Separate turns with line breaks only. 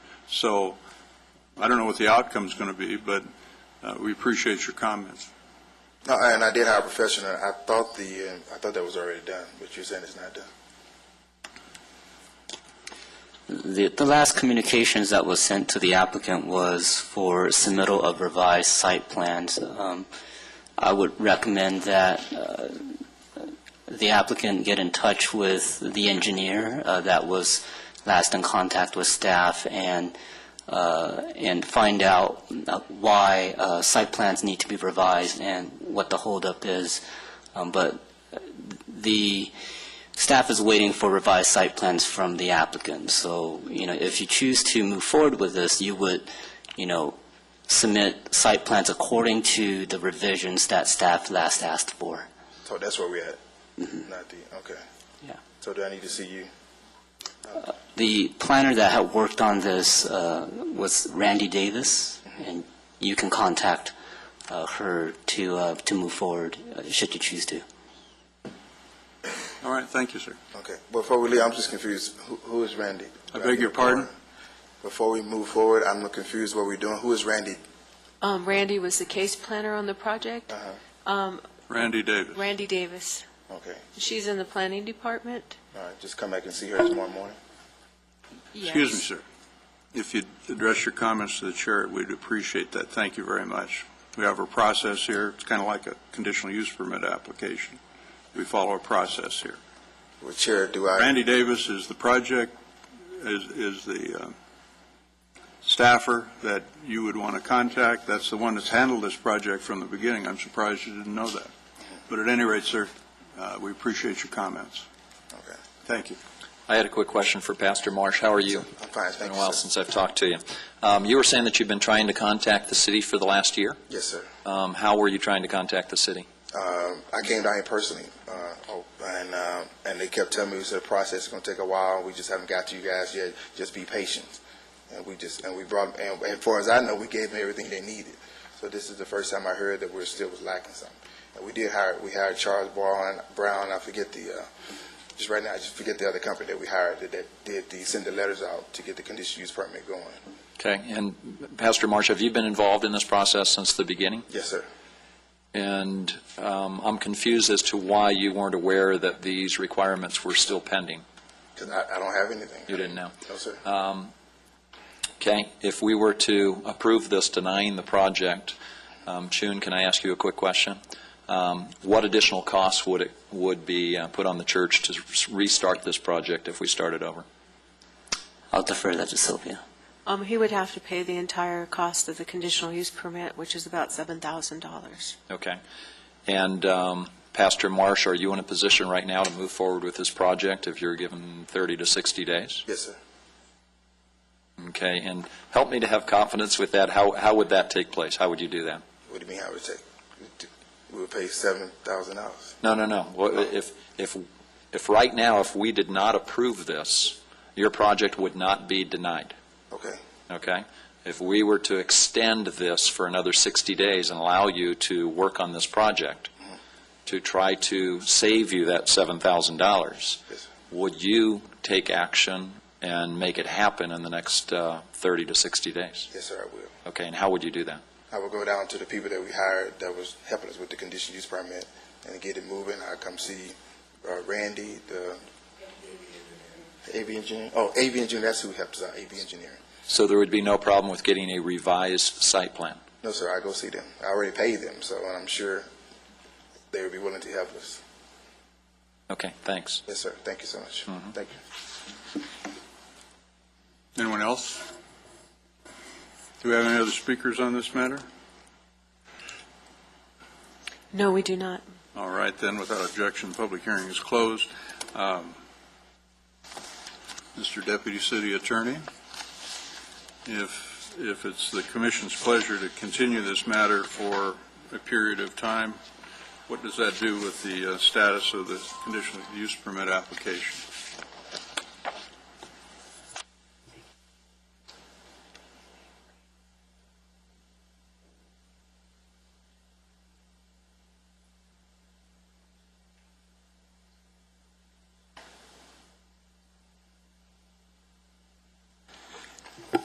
So I don't know what the outcome's going to be, but uh, we appreciate your comments.
No, and I did hire a professional. I thought the, uh, I thought that was already done, but you're saying it's not done.
The, the last communications that was sent to the applicant was for submittal of revised site plans. Um, I would recommend that uh, the applicant get in touch with the engineer uh, that was last in contact with staff and, uh, and find out uh, why uh, site plans need to be revised and what the holdup is. Um, But the, staff is waiting for revised site plans from the applicant. So, you know, if you choose to move forward with this, you would, you know, submit site plans according to the revisions that staff last asked for.
So that's where we're at, not the, okay.
Yeah.
So do I need to see you?
The planner that had worked on this uh, was Randy Davis, and you can contact uh, her to, uh, to move forward, uh, should you choose to.
All right, thank you, sir.
Okay. Before we leave, I'm just confused. Who, who is Randy?
I
Uh,
beg your pardon?
Before we move forward, I'm confused what we're doing. Who is Randy?
Um, Randy was the case planner on the project.
Uh-huh.
Um,
Randy Davis.
Randy Davis,
Okay.
she's in the planning department.
All right. Just come back and see her tomorrow morning.
Excuse me, sir. If you'd address your comments to the chair, we'd appreciate that. Thank you very much. We have a process here. It's kind of like a conditional use permit application. We follow a process here.
Well, Chair, do I?
Randy Davis is the project, is, is the um, staffer that you would want to contact. That's the one that's handled this project from the beginning. I'm surprised you didn't know that. But at any rate, sir, uh, we appreciate your comments.
Okay.
Thank you.
I had a quick question for Pastor Marsh. How are you?
I'm fine.
It's been
Thank
a
you,
while
sir.
since I've talked to you. Um, You were saying that you've been trying to contact the city for the last year.
Yes, sir.
Um, How were you trying to contact the city?
Um, I came down here personally, uh, oh, and um, and they kept telling me we said the process is going to take a while. We just haven't got to you guys yet. Just be patient. And we just and we brought and as far as I know, we gave them everything they needed. So this is the first time I heard that we're still was lacking something. And we did hire we hired Charles Brown. Brown I forget the uh, just right now I just forget the other company that we hired that, that did the send the letters out to get the conditional use permit going.
Okay, and Pastor Marsh, have you been involved in this process since the beginning?
Yes, sir.
And um, I'm confused as to why you weren't aware that these requirements were still pending.
Because I, I don't have anything.
You didn't know.
No, sir.
Um, Okay, if we were to approve this denying the project, um, Chun, can I ask you a quick question? Um, What additional costs would it, would be uh, put on the church to s- restart this project if we started over?
I'll defer that to Sylvia.
Um, he would have to pay the entire cost of the conditional use permit, which is about seven thousand dollars.
Okay. And um, Pastor Marsh, are you in a position right now to move forward with this project if you're given 30 to 60 days?
Yes, sir.
Okay, and help me to have confidence with that. How, how would that take place? How would you do that?
What do you mean I would take? We would pay seven thousand dollars.
No, no, no. Well, If, if, if right now, if we did not approve this, your project would not be denied,
Okay.
okay? If we were to extend this for another 60 days and allow you to work on this project, to try to save you that $7,000,
Yes, sir.
would you take action and make it happen in the next uh, 30 to 60 days?
Yes, sir, I will.
Okay, and how would you do that?
I will go down to the people that we hired that was helping us with the conditional use permit and get it moving. I come see uh, Randy, the the AV engineer. Oh, AV engineer. That's who helped us out. AV engineer.
So there would be no problem with getting a revised site plan?
No, sir. I go see them. I already paid them, so and I'm sure they would be willing to help us.
Okay, thanks.
Yes, sir. Thank you so much. Thank you.
Anyone else? Do we have any other speakers on this matter?
No, we do not.
All right, then, without objection, the public hearing is closed. Um, Mr. Deputy City Attorney, if, if it's the commission's pleasure to continue this matter for a period of time, what does that do with the uh, status of the conditional use permit application?